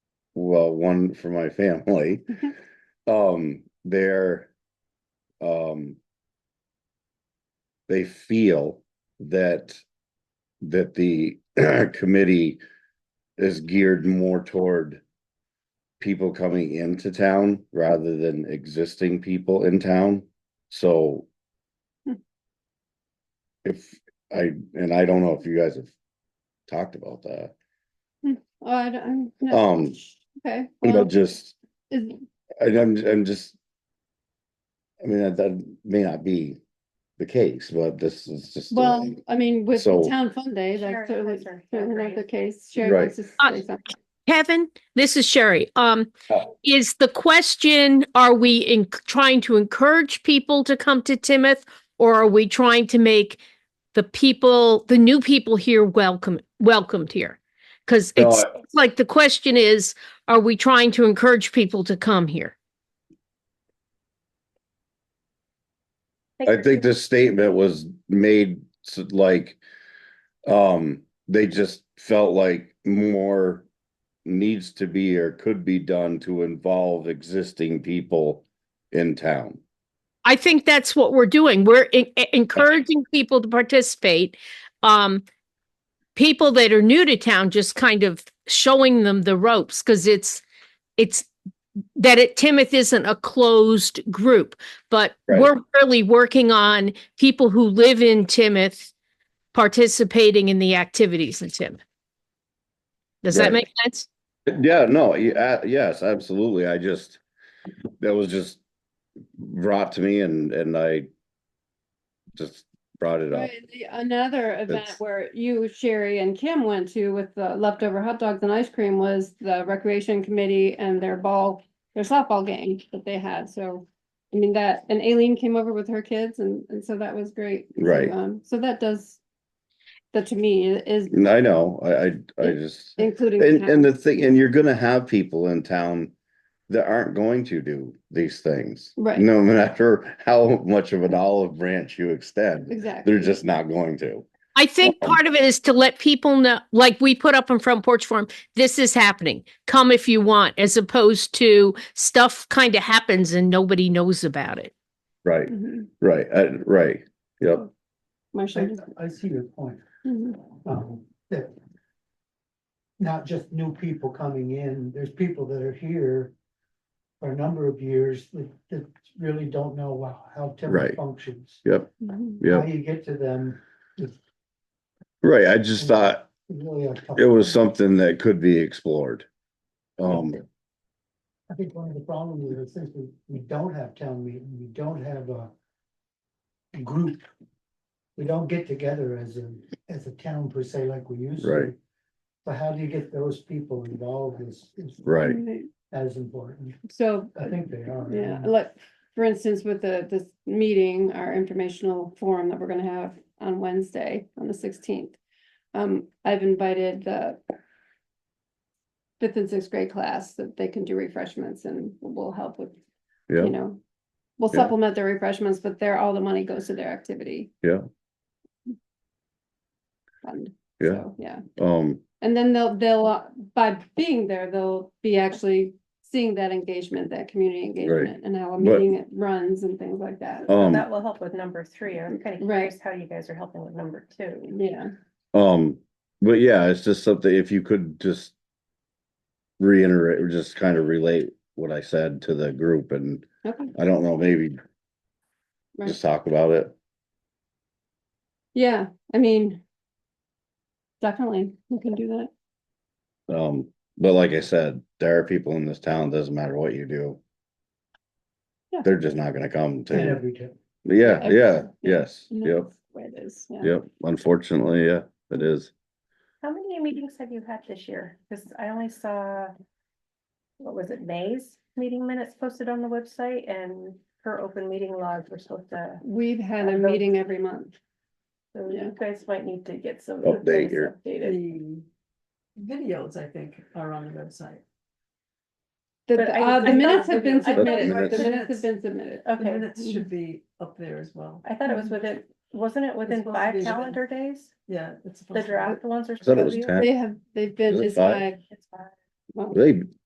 well, one for my family. Mhm. Um, they're, um, they feel that, that the committee is geared more toward people coming into town rather than existing people in town. So Hmm. if I, and I don't know if you guys have talked about that, Oh, I don't, I'm not- Um, Okay. well, but just, is- I- I'm, I'm just. I mean, that, that may not be the case, but this is just. the Well, way- I mean, with So- the town fund day, Sure, that's certainly, that's right, certainly not the agreed. case. Sherry Right. wants to say Uh, something. Kevin, this is Sherry. Um, Oh. is the question, are we in trying to encourage people to come to Timoth? Or are we trying to make the people, the new people here welcome, welcomed here? Cause No, it's it's like the question is, are we trying to encourage people to come here? I think this statement was made s- like, um, they just felt like more needs to be or could be done to involve existing people in town. I think that's what we're doing. We're en- e- encouraging people to participate. Um, people that are new to town, just kind of showing them the ropes because it's, it's that it, Timoth isn't a closed group, but Right. we're really working on people who live in Timoth participating in the activities in Timoth. Does Right. that make sense? Yeah, no, yeah, yes, absolutely. I just, that was just brought to me and, and I just brought it up. Right, the- Another event That's- where you, Sherry and Kim went to with the leftover hot dogs and ice cream was the recreation committee and their ball, their softball game that they had. So, I mean, that, and Aileen came over with her kids and, and so that was great. So, Right. um, So that does, that to me is And I know, I, I, I Yeah. just, including. the and, town. and the thing, and you're gonna have people in town that aren't going to do these things. Right. No matter how much of an olive branch you extend, Exactly. they're just not going to. I think Um, part of it is to let people know, like we put up in front porch forum, this is happening. Come if you want, as opposed to stuff kind of happens and nobody knows about it. Right, Mhm. right, uh, right, yep, Oh. Marcia. I, I see your point, Mhm. um, that. Not just new people coming in, there's people that are here. For a number of years that, that really don't know wow, how Right. Timoth functions. yep, Mhm. How yep, you get to them is right. I just thought really a tough. it was thing. something that could be explored. Um, I think one of the problems is since we, we don't have town meeting, we don't have a. Group. We don't get together as a, as a town per se like we used to. Right. So how do you get those people involved is, is right, Right. as important. So, uh, I think they are. yeah, Um, like, for instance, with the, this meeting, our informational forum that we're gonna have on Wednesday, on the sixteenth. Um, I've invited the. Fifth and sixth grade class that they can do refreshments and we'll help with, you yeah, know. We'll Yeah. supplement their refreshments, but their, all the money goes to their activity. Yeah. Fund. Yeah. So, Yeah. um, And then they'll, they'll, uh, by being there, they'll be actually seeing that engagement, that community engagement and how a But- meeting runs and things like that. um. That will help with number three. I'm kind of Right. curious how you guys are helping with number two. Yeah, Um, but yeah, it's just something, if you could just reiterate, or just kind of relate what I said to the group and okay. I don't know, maybe Right. just talk about it. Yeah, I mean, definitely, we can do that. Um, but like I said, there are people in this town, doesn't matter what you do. Yeah. They're just not gonna come And to, every time. yeah, yeah, Everything, yeah. yes, And yep, that's the way it is, yeah. yep, unfortunately, yeah, it is. How many meetings have you had this year? Because I only saw, what was it, May's meeting minutes posted on the website and her open meeting logs were supposed to. We've had a I hope- meeting every month. So Yeah. you guys might need to get some. Update things your- Updated. The videos, I think, are on the website. The, But the- I- uh, the I minutes thought have been videos- I thought submitted, minutes- the minutes have been submitted. The Okay, minutes should be up there as well. I thought it was within, wasn't it within Mm-hmm. supposed to be five within- calendar days? Yeah, it's. The supposed to be- draft ones are. I thought it supposed was to be- ten. They have, they've been, Is it it's five? five. It's five. well, They,